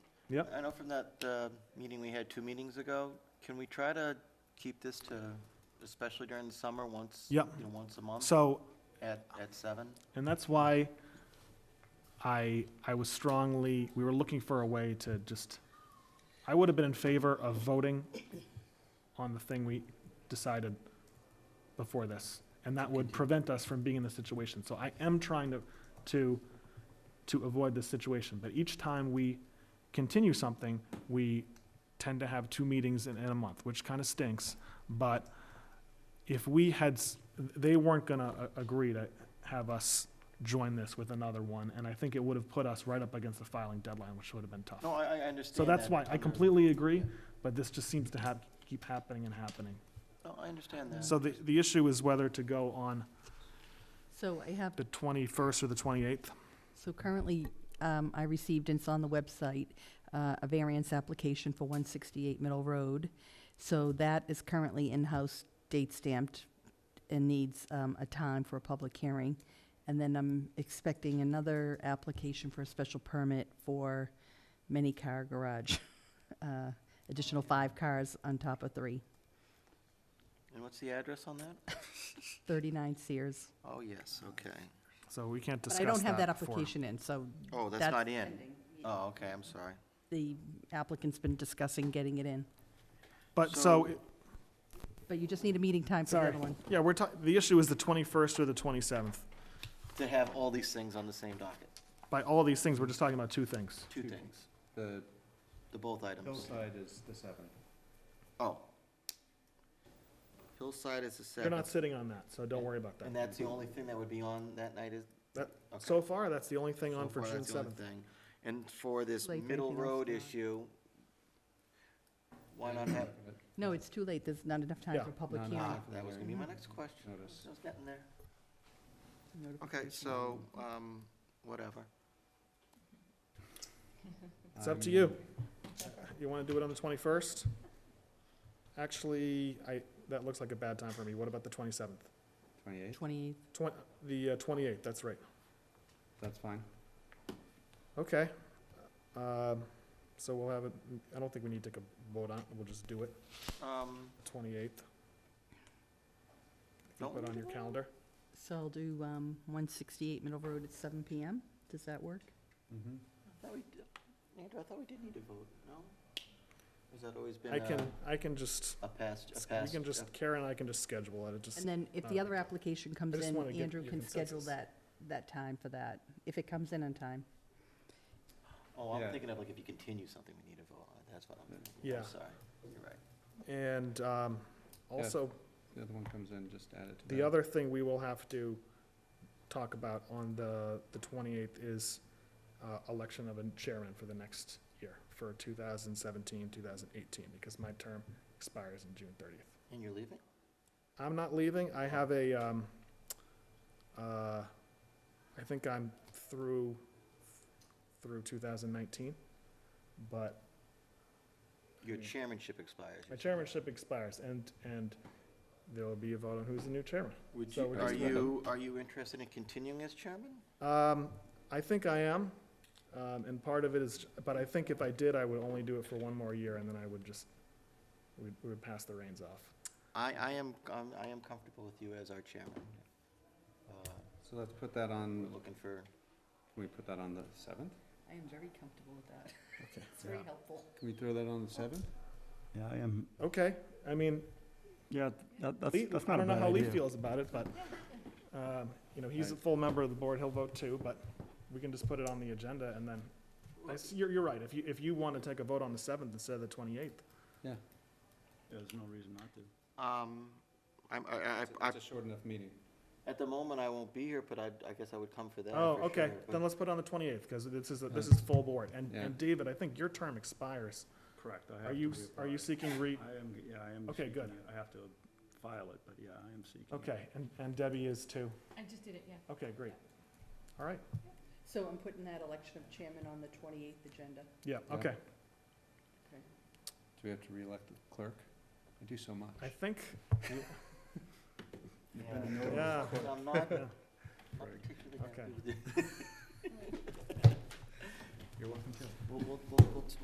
Yep. I know from that uh, meeting we had two meetings ago, can we try to keep this to, especially during the summer, once, you Yep. know, once a month So, at, at seven? and that's why I, I was strongly, we were looking for a way to just, I would have been in favor of voting on the thing we decided before this, and that would prevent us from being in this situation. So I am trying to, to, to avoid this situation, but each time we continue something, we tend to have two meetings in, in a month, which kind of stinks, but if we had, s- they weren't gonna a- agree to have us join this with another one, and I think it would have put us right up against the filing deadline, which would have been tough. No, I, I understand. So that's that why, I under- completely agree, but this just seems to have, keep happening and happening. No, I understand that. So the, the issue is whether to go on So I have, the twenty-first or the twenty-eighth. so currently, um, I received, and it's on the website, uh, a variance application for one sixty-eight Middle Road. So that is currently in-house date stamped and needs, um, a time for a public hearing. And then I'm expecting another application for a special permit for mini-car garage. Uh, Additional five cars on top of three. And what's the address on that? Thirty-nine Sears. Oh, yes, okay. So we can't discuss But that I don't have that before. application in, so Oh, that's That's not in. Oh, okay, I'm sorry. the applicant's been discussing getting it in. But So- so, it- But you just need a meeting time for the sorry, other one. yeah, we're talking, the issue is the twenty-first or the twenty-seventh. To have all these things on the same docket, By all these things, we're just talking about two things. two things, The the both items. hillside is the seventh. Oh. Hillside is the You're seven, not sitting on that, so don't worry about and that. that's the only thing that would be on that night is? That- okay. So far, that's the only thing on So for far, June that's the only seventh. thing. And for this Like middle anything else, road no. issue, why not have, No, it's too late, there's not enough time Yeah. for public No, no. hearing. ah, that was gonna be my next question. Notice. I was getting there. Okay, Notification. so, um, whatever. It's up to you. You wanna do it on the twenty-first? Actually, I, that looks like a bad time for me. What about the twenty-seventh? Twenty-eighth, Twenty, Twen, the uh, twenty-eighth, that's right. that's fine. Okay. Um, so we'll have it, I don't think we need to take a vote on it. We'll just do it, Um, twenty-eighth. If you Don't put it on your calendar. so I'll do, um, one sixty-eight Middle Road at seven PM, does that work? Mm-hmm. I thought we, d- Andrew, I thought we did need to vote, no? Has that always been uh, I can, a, I can just, a past, a we past? can just, a- Karen and I can just schedule it. It just, And then if the Uh, other application comes I just in, wanna get Andrew your can schedule consensus. that, that time for that, if it comes in on time. Oh, I'm Yeah. thinking of like if you continue something, we need to vote on it, that's what I'm thinking. I'm Yeah. Sorry, you're right. and, um, also, The other one comes in, just add it to that. The other thing we will have to talk about on the, the twenty-eighth is, uh, election of a chairman for the next year, for 2017-2018, because my term expires in June thirtieth. And you're leaving? I'm not leaving, I have a, um, uh, I think I'm through, through two thousand nineteen, but Your Yeah. chairmanship expires. my you said. chairmanship expires, and, and there will be a vote on who's the new chairman. Would so you, we're are just gonna- you, are you interested in continuing as chairman? Um, I think I am, um, and part of it is, but I think if I did, I would only do it for one more year, and then I would just, we we would pass the reins off. I, I am, um, I am comfortable with you as our chairman. Uh, So let's put that on, We're looking for, can we put that on the seventh? I am very comfortable with that, it's very Yeah. helpful. Can we throw that on the seventh? Yeah, I am, Okay, I mean, yeah, that, that's, Lee- that's I not a don't know bad how Lee idea. feels about it, but, um, you know, he's a full member of the board, he'll vote too, but we can just put it on the agenda, and then, I s- you're, you're right, if you, if you want to take a vote on the seventh instead of the twenty-eighth, Yeah. There's no reason not to. um, I'm, I, I- It's a- I, It's a short enough meeting. at the moment, I won't be here, but I, I guess I would come for that. Oh, for okay, sure, but- then let's put it on the twenty-eighth, because this is, a- this Yeah. is full board, and, Yeah. and David, I think your term expires. Correct, I have Are to you, are you reapply. seeking re, I am, yeah, I am. Okay, good. seeking it. I have to file it, but yeah, I am seeking. it. Okay, and, and Debbie is too. I just did it, yeah. Okay, great. All right, So I'm putting that election of chairman on the twenty-eighth agenda. yeah, Yeah. okay. Do we have to reelect the clerk? I do so much. I think, Yeah. yeah, But I'm not, not Yeah. particularly happy Okay. with it. You're welcome to. We'll, we'll, we'll, we'll-